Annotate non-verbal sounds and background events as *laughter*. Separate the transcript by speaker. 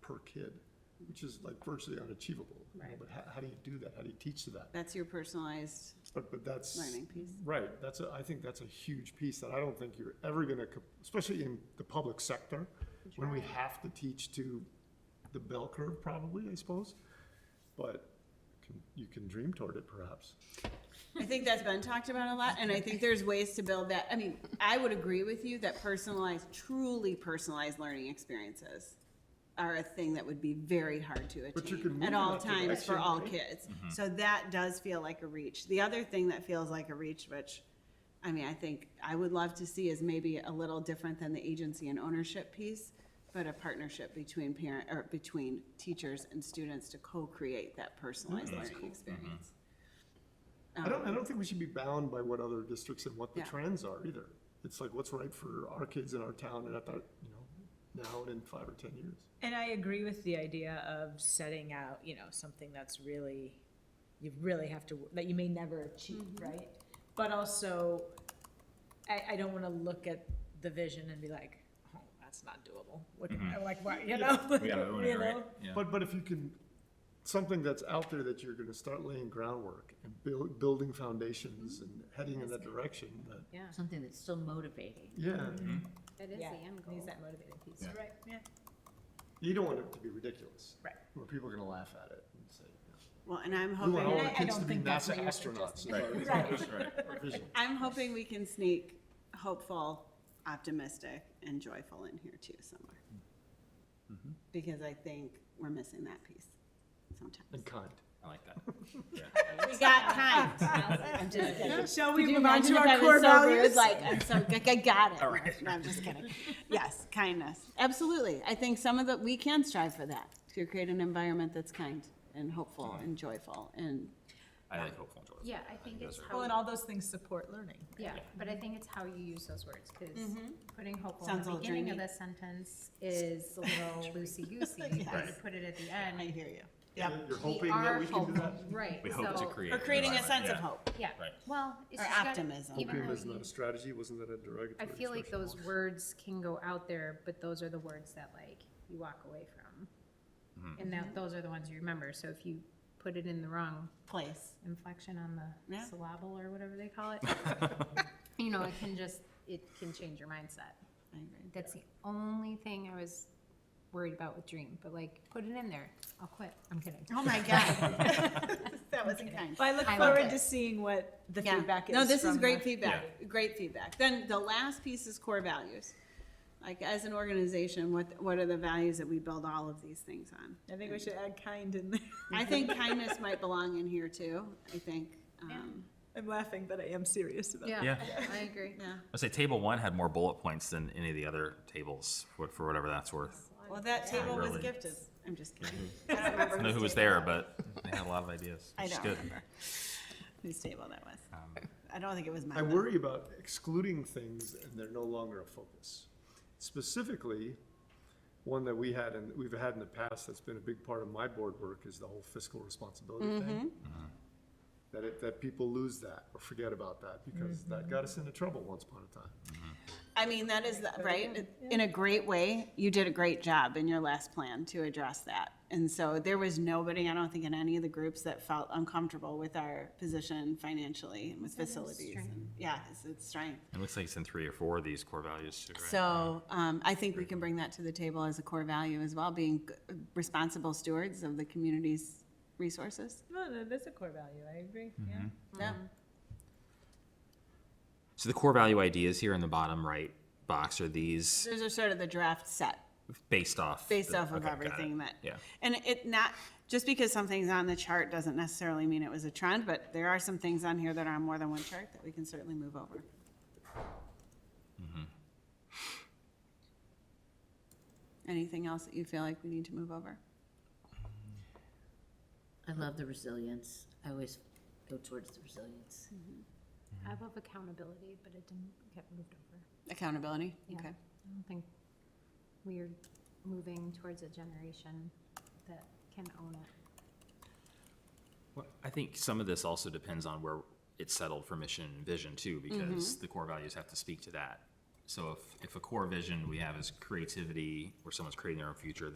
Speaker 1: per kid, which is like virtually unachievable. you know,
Speaker 2: Right.
Speaker 1: But how, how do you do that? How do you teach to that?
Speaker 2: That's your personalized
Speaker 1: But, but that's.
Speaker 2: learning piece.
Speaker 1: Right, that's a, I think that's a huge piece that I don't think you're ever gonna, co- especially in the public sector, when we have to teach to the bell curve probably, I suppose. But can- you can dream toward it perhaps.
Speaker 2: I think that's been talked about a lot, and I think there's ways to build that. I mean, I would agree with you that personalized, truly personalized learning experiences are a thing that would be very hard to
Speaker 1: But you can
Speaker 2: attain
Speaker 1: move
Speaker 2: at
Speaker 1: in
Speaker 2: all
Speaker 1: that
Speaker 2: times
Speaker 1: direction,
Speaker 2: for all
Speaker 1: right?
Speaker 2: kids. So that does feel like a reach. The other thing that feels like a reach, which, I mean, I think I would love to see is maybe a little different than the agency and ownership piece, but a partnership between parent, or between teachers and students to co-create that personalized learning experience.
Speaker 1: I don't, I don't think we should be bound by what other districts and what the
Speaker 2: Um. Yeah.
Speaker 1: trends are either. It's like what's right for our kids in our town and at that, you know, now and in five or ten years.
Speaker 3: And I agree with the idea of setting out, you know, something that's really, you really have to, that you may never achieve,
Speaker 2: Mm-hmm.
Speaker 3: right? But also, I, I don't wanna look at the vision and be like, oh, that's not doable. What, like, what, you know?
Speaker 4: We gotta own
Speaker 3: *laughs*
Speaker 4: it,
Speaker 3: You
Speaker 4: right?
Speaker 3: know?
Speaker 4: Yeah.
Speaker 1: But, but if you can, something that's out there that you're gonna start laying groundwork and build, building
Speaker 3: Mm-hmm.
Speaker 1: foundations and heading in that direction, that,
Speaker 3: Yeah,
Speaker 5: something that's still motivating.
Speaker 3: Mm-hmm.
Speaker 1: yeah.
Speaker 6: That is the
Speaker 3: yeah,
Speaker 6: end
Speaker 3: I think
Speaker 6: goal. *laughs*
Speaker 3: it's that motivating piece.
Speaker 4: Yeah.
Speaker 3: Right, yeah.
Speaker 1: You don't want it to be ridiculous.
Speaker 3: Right.
Speaker 1: Where people are gonna laugh at it and say,
Speaker 2: Well, and I'm
Speaker 1: we want all
Speaker 2: hoping,
Speaker 1: our
Speaker 3: I- I
Speaker 1: kids
Speaker 3: don't
Speaker 1: to be
Speaker 3: think
Speaker 1: NASA
Speaker 3: that's what you're
Speaker 1: astronauts.
Speaker 3: suggesting.
Speaker 1: is our-
Speaker 3: Right.
Speaker 4: That's right.
Speaker 1: our vision.
Speaker 2: I'm hoping we can sneak hopeful, optimistic, and joyful in here too somewhere.
Speaker 4: Mm-hmm.
Speaker 2: Because I think we're missing that piece
Speaker 1: And
Speaker 2: sometimes.
Speaker 1: kind.
Speaker 4: I like that. Yeah.
Speaker 2: We got kind. *laughs* I'm just kidding.
Speaker 3: Shall we
Speaker 2: Could you
Speaker 3: move on
Speaker 2: imagine
Speaker 3: to
Speaker 2: if I
Speaker 3: our
Speaker 2: was
Speaker 3: core
Speaker 2: so rude?
Speaker 3: values?
Speaker 2: Like, I'm so, I- I got it. No, I'm just kidding. Yes, kindness. Absolutely. I think some of the, we can strive for that, to create an environment that's kind and hopeful and joyful and
Speaker 4: I like hopeful and joyful.
Speaker 6: Yeah, I think it's
Speaker 4: those are-
Speaker 6: how,
Speaker 2: um,
Speaker 3: Well, and all those things support learning.
Speaker 6: yeah, but I think it's how you use those words, because putting hopeful in
Speaker 2: Mm-hmm. Sounds a
Speaker 6: the
Speaker 2: little
Speaker 6: beginning of
Speaker 2: dreamy.
Speaker 6: the sentence is
Speaker 2: *laughs*
Speaker 6: a little loosey-goosey. and you
Speaker 4: Right.
Speaker 6: Put it at the end.
Speaker 2: I hear you. Yep.
Speaker 1: You're
Speaker 6: We
Speaker 1: hoping
Speaker 6: are
Speaker 1: that we can do
Speaker 6: hopeful,
Speaker 1: that?
Speaker 6: Right.
Speaker 4: We hope to
Speaker 6: so-
Speaker 4: create.
Speaker 2: Or
Speaker 4: an
Speaker 2: creating a
Speaker 4: environment,
Speaker 2: sense of
Speaker 4: yeah.
Speaker 2: hope.
Speaker 6: Yeah.
Speaker 4: Right.
Speaker 6: Well, it's
Speaker 2: Or
Speaker 6: just gotta-
Speaker 2: optimism.
Speaker 6: even
Speaker 1: Hoping
Speaker 6: though
Speaker 1: is
Speaker 6: you-
Speaker 1: not a strategy, wasn't that a derogatory
Speaker 6: I feel like
Speaker 1: expression?
Speaker 6: those words can go out there, but those are the words that like you walk away from.
Speaker 1: Mm-hmm.
Speaker 6: And that, those are the ones you remember. So if you put it in the wrong
Speaker 2: Place.
Speaker 6: inflection on the
Speaker 2: Yeah.
Speaker 6: syllable or whatever they
Speaker 2: *laughs*
Speaker 6: call it, you know, it can just, it can change your mindset.
Speaker 2: I agree.
Speaker 6: That's the only thing I was worried about with dream, but like, put it in there. I'll quit. I'm kidding.
Speaker 2: Oh my God. That wasn't kind.
Speaker 3: Well, I look
Speaker 6: I love
Speaker 3: forward
Speaker 6: it.
Speaker 3: to seeing what the
Speaker 2: Yeah.
Speaker 3: feedback is.
Speaker 2: No, this is
Speaker 3: from
Speaker 2: great
Speaker 3: the-
Speaker 2: feedback, great feedback. Then the last piece is core values. Like, as an organization, what, what are the values that we build all of these things on?
Speaker 3: I think we should add kind in there. *laughs*
Speaker 2: I think kindness might belong in here too, I think. Um,
Speaker 3: I'm laughing, but I am serious about it.
Speaker 6: *laughs* Yeah, I agree.
Speaker 2: Yeah,
Speaker 4: I say table one had more bullet points than any of the other tables for, for whatever that's worth.
Speaker 2: well, that table was
Speaker 4: Really?
Speaker 2: gifted. I'm just kidding. I don't remember
Speaker 4: I don't know who was there, but they had a lot of ideas.
Speaker 2: I
Speaker 4: which is
Speaker 2: don't
Speaker 4: good.
Speaker 2: remember whose table that was.
Speaker 4: Um,
Speaker 2: I don't think it was mine.
Speaker 1: I worry about excluding things and they're no longer a focus. Specifically, one that we had and we've had in the past that's been a big part of my board work is the whole fiscal responsibility thing. That it, that people lose that or forget about that because that got us into trouble once upon a time.
Speaker 2: I mean, that is, the- right, in a great way, you did a great job in your last plan to address that. And so there was nobody, I don't think, in any of the groups that felt uncomfortable with our position financially and with facilities. And, Yeah, it's, it's strength.
Speaker 4: It looks like it's in three or four of these core values too, right?
Speaker 2: So, um, I think we can bring that to the table as a core value as well, being g- responsible stewards of the community's resources.
Speaker 3: No, no, that's a core value. I agree. Yeah.
Speaker 2: Yeah,
Speaker 4: So the core value ideas here in the bottom right box are these
Speaker 2: those are sort of the draft set.
Speaker 4: based off.
Speaker 2: based
Speaker 4: the-
Speaker 2: off of
Speaker 4: okay, got it.
Speaker 2: everything that.
Speaker 4: Yeah.
Speaker 2: And it not, just because something's on the chart doesn't necessarily mean it was a trend, but there are some things on here that are on more than one chart that we can certainly move over. Anything else that you feel like we need to move over?
Speaker 5: I love the resilience. I always go towards the resilience.
Speaker 6: I love accountability, but it didn't get moved over.
Speaker 2: Accountability,
Speaker 6: Yeah.
Speaker 2: okay.
Speaker 6: I don't think we're moving towards a generation that can own it.
Speaker 4: Well, I think some of this also depends on where it's settled for mission and vision too, because the core values have to speak to that. So if, if a core vision we have is creativity, where someone's creating their own future,